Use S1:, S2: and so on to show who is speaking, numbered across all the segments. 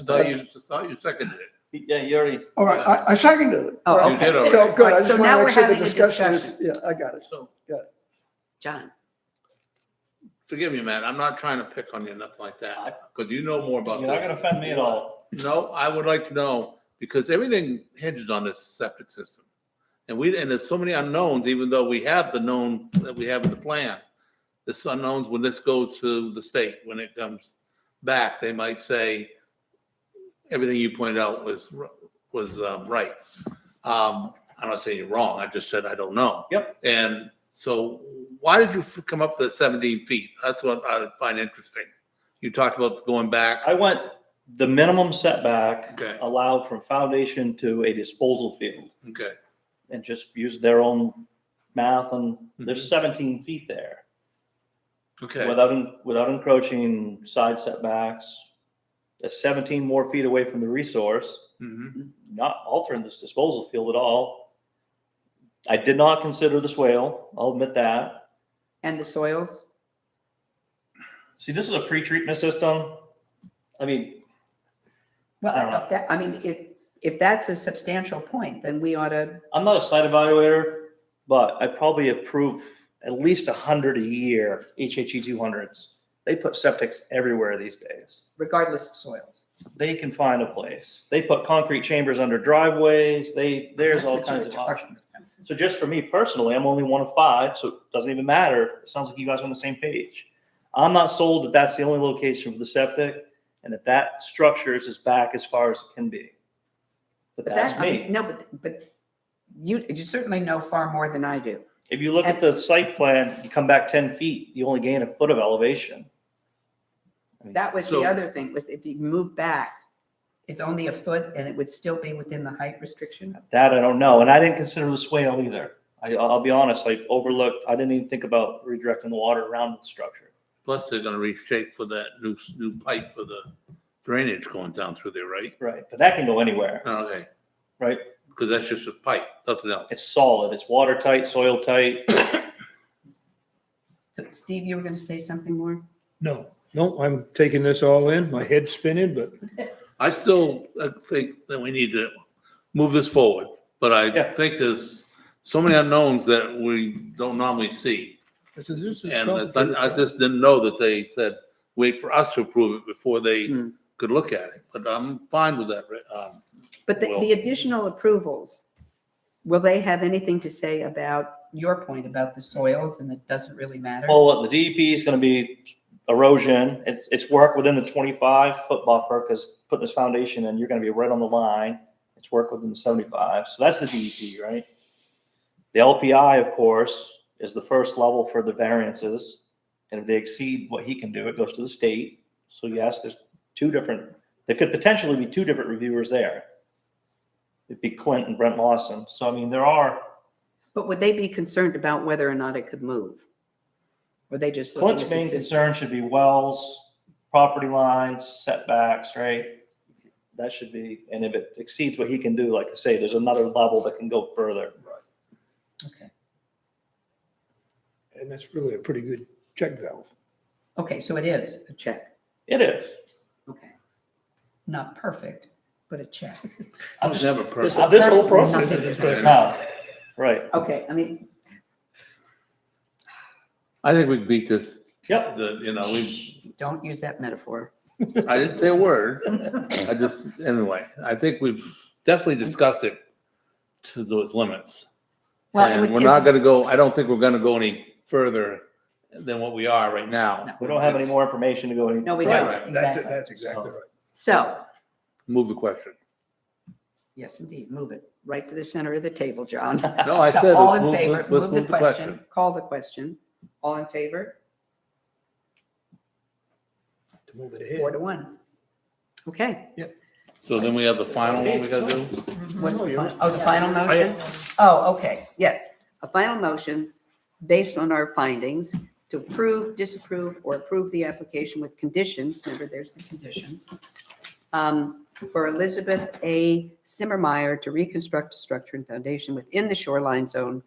S1: I thought you, I thought you seconded it.
S2: Yeah, you already,
S3: All right, I, I seconded it.
S1: You
S4: Oh,
S1: did
S4: okay.
S1: already.
S3: So, good, I
S4: Right, so
S3: just want
S4: now
S3: to
S4: we're
S3: make sure the
S4: having a
S3: discussion is, yeah, I got it.
S1: So
S4: John,
S1: forgive me, Matt, I'm not trying to pick on you, nothing like that, because you know more about
S2: you're not gonna
S1: this.
S2: offend me at all.
S1: No, I would like to know, because everything hinges on this septic system. And we, and there's so many unknowns, even though we have the known that we have in the plan. This unknowns, when this goes to the state, when it comes back, they might say everything you pointed out was, r- was um, right. Um, I'm not saying you're wrong, I just said I don't know.
S2: Yep.
S1: And so why did you f- come up with the 17 feet? That's what I find interesting. You talked about going back.
S2: I went the minimum setback
S1: Okay,
S2: allowed from foundation to a disposal field
S1: okay.
S2: and just used their own math and there's seventeen feet there.
S1: Okay,
S2: Without, en- without encroaching side setbacks, that's seventeen more feet away from the resource.
S1: Mhm.
S2: not altering this disposal field at all. I did not consider the swale, I'll admit that.
S4: and the soils?
S2: See, this is a pre-treatment system. I mean,
S4: Well,
S2: I don't know.
S4: I- that, I mean, if, if that's a substantial point, then we ought to,
S2: I'm not a site evaluator, but I probably approve at least a hundred a year, HHE two hundreds. They put septics everywhere these days.
S4: regardless of soils.
S2: They can find a place. They put concrete chambers under driveways, they, there's
S4: That's
S2: all
S4: what you
S2: kinds
S4: were
S2: of
S4: talking
S2: options. So just for me personally, I'm only one of five, so it doesn't even matter. It sounds like you guys are on the same page. I'm not sold that that's the only location for the septic and that that structure is as back as far as it can be. But
S4: But
S2: that's
S4: that, I mean,
S2: me.
S4: No, but, but you, you certainly know far more than I do.
S2: If you look at the site plan, you come back ten feet, you only gain a foot of elevation.
S4: That was the
S1: So-
S4: other thing, was if you move back, it's only a foot and it would still be within the height restriction?
S2: That I don't know, and I didn't consider the swale either. I, I'll be honest, I overlooked, I didn't even think about redirecting the water around the structure.
S1: plus they're gonna reshape for that new, new pipe for the drainage going down through there, right?
S2: Right, but that can go anywhere.
S1: Okay.
S2: Right.
S1: Because that's just a pipe, nothing else.
S2: It's solid, it's watertight, soil tight.
S4: So Steve, you were going to say something more?
S5: No, no, I'm taking this all in, my head's spinning, but
S1: I still uh, think that we need to move this forward, but I
S2: Yeah.
S1: think there's so many unknowns that we don't normally see.
S5: this is, this is.
S1: And it's-
S5: complicated.
S1: I just didn't know that they said, wait for us to approve it before they
S4: Hmm.
S1: could look at it, but I'm fine with that. Rick. Um,
S4: But the, the
S1: Well-
S4: additional approvals, will they have anything to say about your point about the soils and it doesn't really matter?
S2: Well, what the DEP is gonna be erosion, it's, it's work within the twenty-five foot buffer, because putting this foundation in, you're gonna be right on the line. It's work within the seventy-five, so that's the DEP, right? The LPI, of course, is the first level for the variances, and if they exceed what he can do, it goes to the state. So yes, there's two different, there could potentially be two different reviewers there. It'd be Clint and Brent Lawson, so I mean, there are,
S4: But would they be concerned about whether or not it could move? Were they just? looking
S2: Clint's
S4: at the
S2: main
S4: system?
S2: concern should be wells, property lines, setbacks, right? That should be, and if it exceeds what he can do, like I say, there's another level that can go further.
S4: Okay.
S5: And that's really a pretty good check valve.
S4: Okay, so it is a check.
S2: It is.
S4: Okay. Not perfect, but a check.
S2: I'm
S1: it's
S2: just,
S1: never
S5: This,
S1: perfect.
S5: this
S4: personally-
S5: whole process is just been-
S2: no, right,
S4: Okay, I mean,
S1: I think we beat this,
S2: yep.
S1: the, you know, we,
S4: don't use that metaphor.
S1: I didn't say a word. I just, anyway, I think we've definitely discussed it to those limits.
S4: Well, and
S1: And
S4: we-
S1: we're not gonna go, I don't think we're gonna go any further than what we are right now.
S2: We don't have any more information to go any.
S4: No, we
S1: Right,
S4: don't,
S1: right.
S5: That's,
S4: exactly.
S5: that's exactly right.
S4: So,
S1: Move the question.
S4: yes, indeed, move it right to the center of the table, John.
S1: No, I
S4: So
S1: said,
S4: All
S1: let's
S4: in
S1: move,
S4: favor,
S1: let's-
S4: move
S1: let's
S4: the question, call the question. All in favor,
S5: To move it
S4: four
S5: ahead.
S4: to one. Okay.
S1: So then we have the final one we gotta do?
S4: What's
S5: No,
S4: the
S5: you're-
S4: fin- oh, the final motion? Oh, okay, yes. A final motion based on our findings to approve, disapprove, or approve the application with conditions, remember, there's the condition, um, for Elizabeth A. Simmermeyer to reconstruct a structure and foundation within the shoreline zone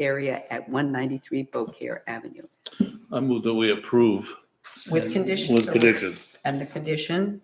S4: area at 193 Beaucaire Avenue.
S1: I move that we approve
S4: With conditions.
S1: with conditions.
S4: And the condition